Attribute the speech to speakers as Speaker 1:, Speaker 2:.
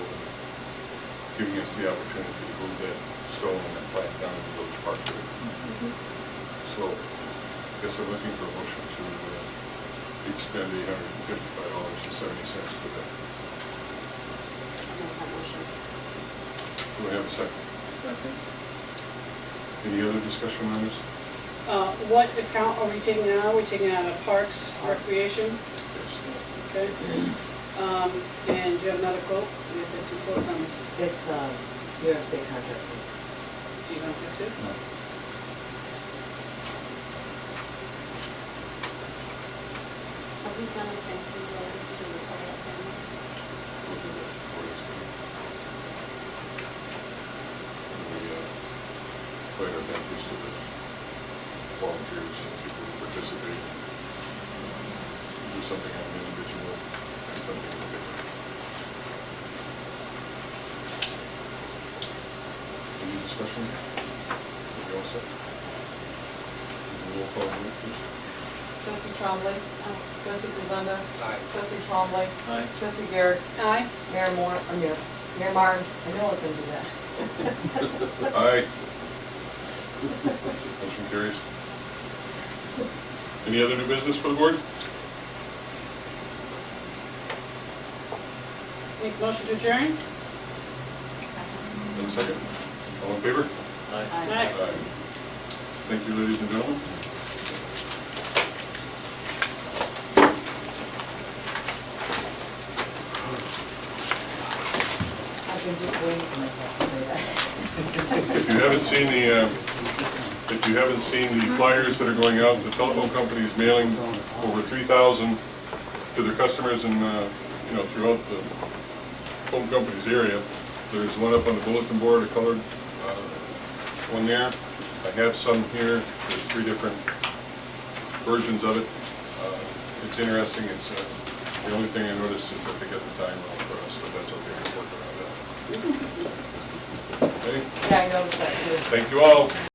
Speaker 1: giving us the opportunity to move that stone and that plant down to Village Park.
Speaker 2: Mm-hmm.
Speaker 1: So, I guess I'm looking for a motion to uh, extend eight hundred and fifty-five dollars and seventy cents for that. Do I have a second?
Speaker 3: Second.
Speaker 1: Any other discussion on this?
Speaker 4: Uh, What account are we taking it out? Are we taking it out of Parks Recreation?
Speaker 1: Yes.
Speaker 4: Okay. Um, And do you have another quote? We have to have two quotes on this.
Speaker 2: It's, um, New York State contract basis.
Speaker 4: Do you want to do two?
Speaker 5: Are we done with that? We will do the quiet then.
Speaker 1: We'll do that before it's done. And We, uh, quite our thanks to the volunteers and people who participate. Do something on an individual and something different. Any discussion? We all set? Roll call, vote, please.
Speaker 6: Trustee Trombley.
Speaker 5: Oh,
Speaker 6: Trustee Kuzenda.
Speaker 3: Aye.
Speaker 6: Trustee Trombley.
Speaker 3: Aye.
Speaker 6: Trustee Garrett.
Speaker 4: Aye.
Speaker 6: Mayor Moore,
Speaker 2: I'm here.
Speaker 6: Mayor Martin.
Speaker 2: I know I was gonna do that.
Speaker 1: Aye. Motion carries. Any other new business for the board?
Speaker 4: Make a motion to adjourn?
Speaker 5: second.
Speaker 1: Have a second? All in favor?
Speaker 3: Aye.
Speaker 5: Aye.
Speaker 1: Thank you, ladies and gentlemen.
Speaker 2: I've been just waiting for myself to say that.
Speaker 1: If you haven't seen the, uh, if you haven't seen the flyers that are going out, the telephone company is mailing over 3,000 to their customers and, uh, you know, throughout the home company's area. There's one up on the bulletin board, a colored uh, one there. I have some here, there's three different versions of it. Uh, It's interesting, it's, uh, the only thing I noticed is that they get the time wrong for us, but that's okay, we're working on that. Okay,
Speaker 6: Yeah, I noticed that too.
Speaker 1: thank you all.